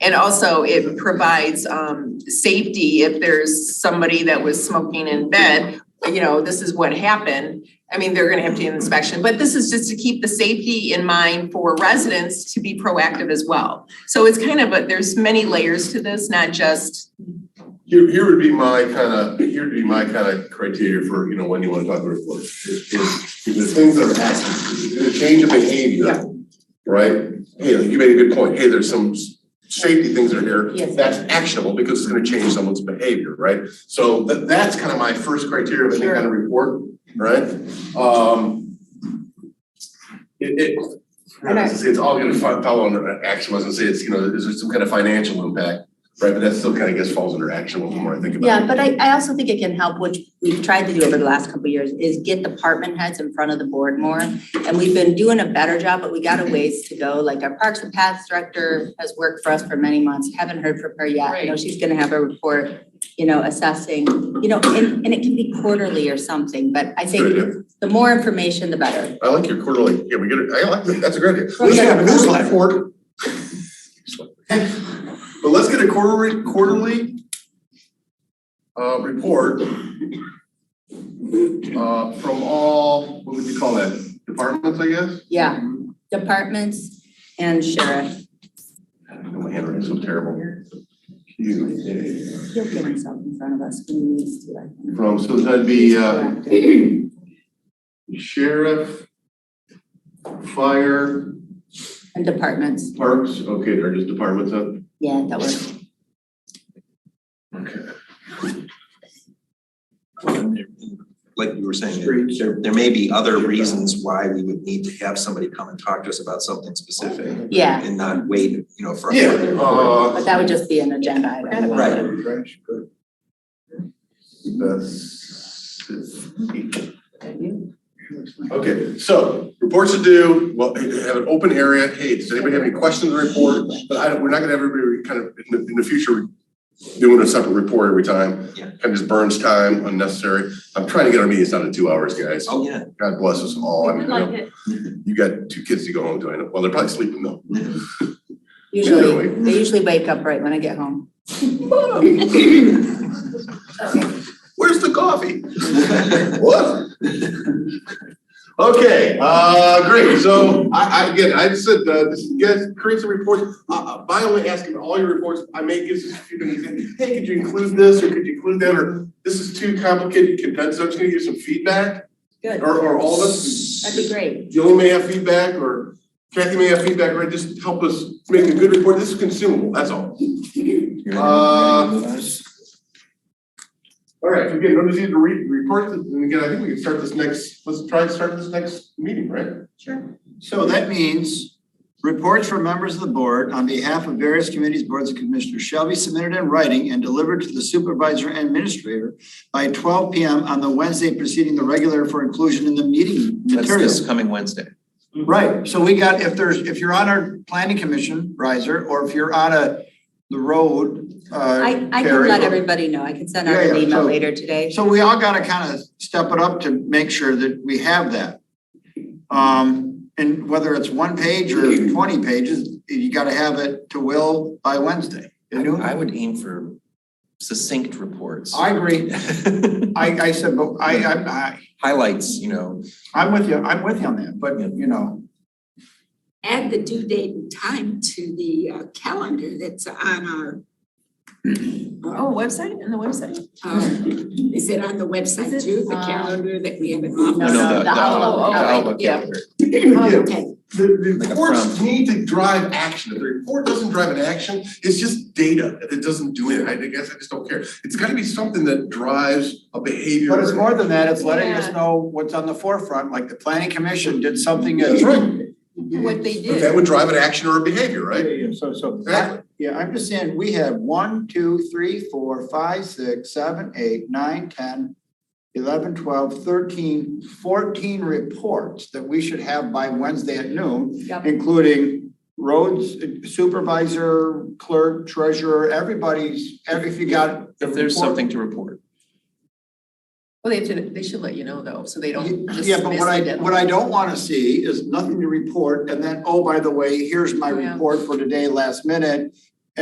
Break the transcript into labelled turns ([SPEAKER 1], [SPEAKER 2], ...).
[SPEAKER 1] And also it provides um safety if there's somebody that was smoking in bed, you know, this is what happened. I mean, they're gonna have to do an inspection, but this is just to keep the safety in mind for residents to be proactive as well. So it's kind of a, there's many layers to this, not just,
[SPEAKER 2] Here, here would be my kind of, here would be my kind of criteria for, you know, when you want to talk about reports. If, if, if there's things that are happening, if there's a change of behavior, right? Hey, you made a good point. Hey, there's some s- safety things that are here.
[SPEAKER 1] Yes.
[SPEAKER 2] That's actionable because it's gonna change someone's behavior, right? So tha- that's kind of my first criteria of any kind of report, right? Um. It, it, I was gonna say it's all gonna fo- follow under action. I was gonna say it's, you know, is there some kind of financial impact? Right, but that still kind of gets falls under action when more I think about it.
[SPEAKER 3] Yeah, but I, I also think it can help, which we've tried to do over the last couple of years, is get department heads in front of the board more. And we've been doing a better job, but we got a ways to go. Like our Parks and Paths Director has worked for us for many months. Haven't heard from her yet. I know she's gonna have a report, you know, assessing, you know, and, and it can be quarterly or something, but I think
[SPEAKER 2] Good
[SPEAKER 3] the more information, the better.
[SPEAKER 2] I like your quarterly, yeah, we get it, I like that, that's a great idea.
[SPEAKER 3] We should have a
[SPEAKER 2] newsletter. But let's get a quarterly, quarterly uh, report uh, from all, what would you call that, departments, I guess?
[SPEAKER 3] Yeah, departments and sheriff.
[SPEAKER 2] Mm-hmm. My handwriting's so terrible. You,
[SPEAKER 3] He'll get himself in front of us when he needs to, I think.
[SPEAKER 2] uh, From, so that'd be uh, sheriff, fire,
[SPEAKER 3] And departments,
[SPEAKER 2] parks, okay, they're just departments up.
[SPEAKER 3] yeah, that works.
[SPEAKER 2] Okay.
[SPEAKER 4] like you were saying, there- there, there may be other reasons why we would need to have somebody come and talk to us about something specific
[SPEAKER 3] Yeah,
[SPEAKER 4] and not wait, you know, for. a
[SPEAKER 2] Yeah,
[SPEAKER 3] but
[SPEAKER 2] uh,
[SPEAKER 3] that would just be an agenda item.
[SPEAKER 4] Right.
[SPEAKER 2] that's it. Okay, so reports to do, well, have an open area. Hey, does anybody have any questions on the report? But I don't, we're not gonna have everybody kind of in the, in the future doing a separate report every time.
[SPEAKER 4] Yeah.
[SPEAKER 2] Kind of just burns time unnecessary. I'm trying to get our meetings down to two hours, guys.
[SPEAKER 4] Oh, yeah.
[SPEAKER 2] God bless us all. I mean, I
[SPEAKER 5] like
[SPEAKER 2] know
[SPEAKER 5] it.
[SPEAKER 2] you got two kids to go home to. I know. Well, they're probably sleeping though.
[SPEAKER 3] Usually,
[SPEAKER 2] Anyway.
[SPEAKER 3] they usually wake up right when I get home.
[SPEAKER 2] Where's the coffee? What? Okay, uh, great, so I, I, again, I said, uh, this, you guys, create some reports, uh, uh, by only asking all your reports, I may give this, you can say, hey, could you include this, or could you include that, or this is too complicated, condensed, I'm just gonna give some feedback,
[SPEAKER 3] Good,
[SPEAKER 2] or, or all of us.
[SPEAKER 3] that'd be great.
[SPEAKER 2] Joey may have feedback, or Kathy may have feedback, right, just help us make a good report, this is consumable, that's all. Uh, All right, so again, no need to re- report this, and again, I think we can start this next, let's try to start this next meeting, right?
[SPEAKER 6] So that means reports from members of the board on behalf of various committees, boards, and commissioners shall be submitted in writing and delivered to the supervisor and administrator by twelve P M on the Wednesday preceding the regular for inclusion in the meeting
[SPEAKER 4] That's this
[SPEAKER 6] materials.
[SPEAKER 4] coming Wednesday.
[SPEAKER 6] Right, so we got, if there's, if you're on our planning commission, riser, or if you're on a, the road, uh.
[SPEAKER 3] I, I can
[SPEAKER 6] carry-
[SPEAKER 3] let everybody know, I can send out
[SPEAKER 6] Yeah,
[SPEAKER 3] an
[SPEAKER 6] yeah,
[SPEAKER 3] email
[SPEAKER 6] so-
[SPEAKER 3] later today.
[SPEAKER 6] So we all gotta kind of step it up to make sure that we have that. Um, and whether it's one page or twenty pages, you gotta have it to Will by Wednesday.
[SPEAKER 4] I
[SPEAKER 6] You know?
[SPEAKER 4] I would aim for succinct reports.
[SPEAKER 6] I agree. I, I said, but I, I, I,
[SPEAKER 4] Highlights, you know,
[SPEAKER 6] I'm with you, I'm with you on that, but you know,
[SPEAKER 7] add the due date and time to the uh, calendar that's on our,
[SPEAKER 1] oh, website, and the website?
[SPEAKER 7] um, is it on the website
[SPEAKER 1] Is it,
[SPEAKER 7] too, the
[SPEAKER 1] uh,
[SPEAKER 7] calendar that we have in
[SPEAKER 4] no,
[SPEAKER 7] office?
[SPEAKER 4] no, the, the
[SPEAKER 1] Outlook,
[SPEAKER 4] outlook, the
[SPEAKER 1] Outlook,
[SPEAKER 4] outlook
[SPEAKER 1] yeah.
[SPEAKER 4] calendar.
[SPEAKER 7] Okay,
[SPEAKER 2] The, the
[SPEAKER 4] Like a
[SPEAKER 2] reports
[SPEAKER 4] prompt.
[SPEAKER 2] need to drive action, if the report doesn't drive an action, it's just data, it doesn't do it, I guess I just don't care. It's gotta be something that drives a behavior.
[SPEAKER 6] but it's more than that, it's letting us
[SPEAKER 1] Yeah.
[SPEAKER 6] know what's on the forefront, like the planning commission did something.
[SPEAKER 2] That's right,
[SPEAKER 1] What they
[SPEAKER 2] but that
[SPEAKER 1] did.
[SPEAKER 2] would drive an action or a behavior,
[SPEAKER 6] Yeah,
[SPEAKER 2] right?
[SPEAKER 6] yeah, so, so.
[SPEAKER 2] Exactly.
[SPEAKER 6] Yeah, I'm just saying, we have one, two, three, four, five, six, seven, eight, nine, ten, eleven, twelve, thirteen, fourteen reports that we should have by Wednesday at noon,
[SPEAKER 3] Yep.
[SPEAKER 6] including roads uh, supervisor, clerk, treasurer, everybody's, every, if you got. the
[SPEAKER 4] If there's
[SPEAKER 6] report-
[SPEAKER 4] something to report.
[SPEAKER 1] Well, they have to, they should let you know though, so they don't just miss
[SPEAKER 6] Yeah, but what
[SPEAKER 1] the
[SPEAKER 6] I,
[SPEAKER 1] deadline.
[SPEAKER 6] what I don't wanna see is nothing to report and then, oh, by the way, here's my
[SPEAKER 1] Yeah.
[SPEAKER 6] report for today, last minute.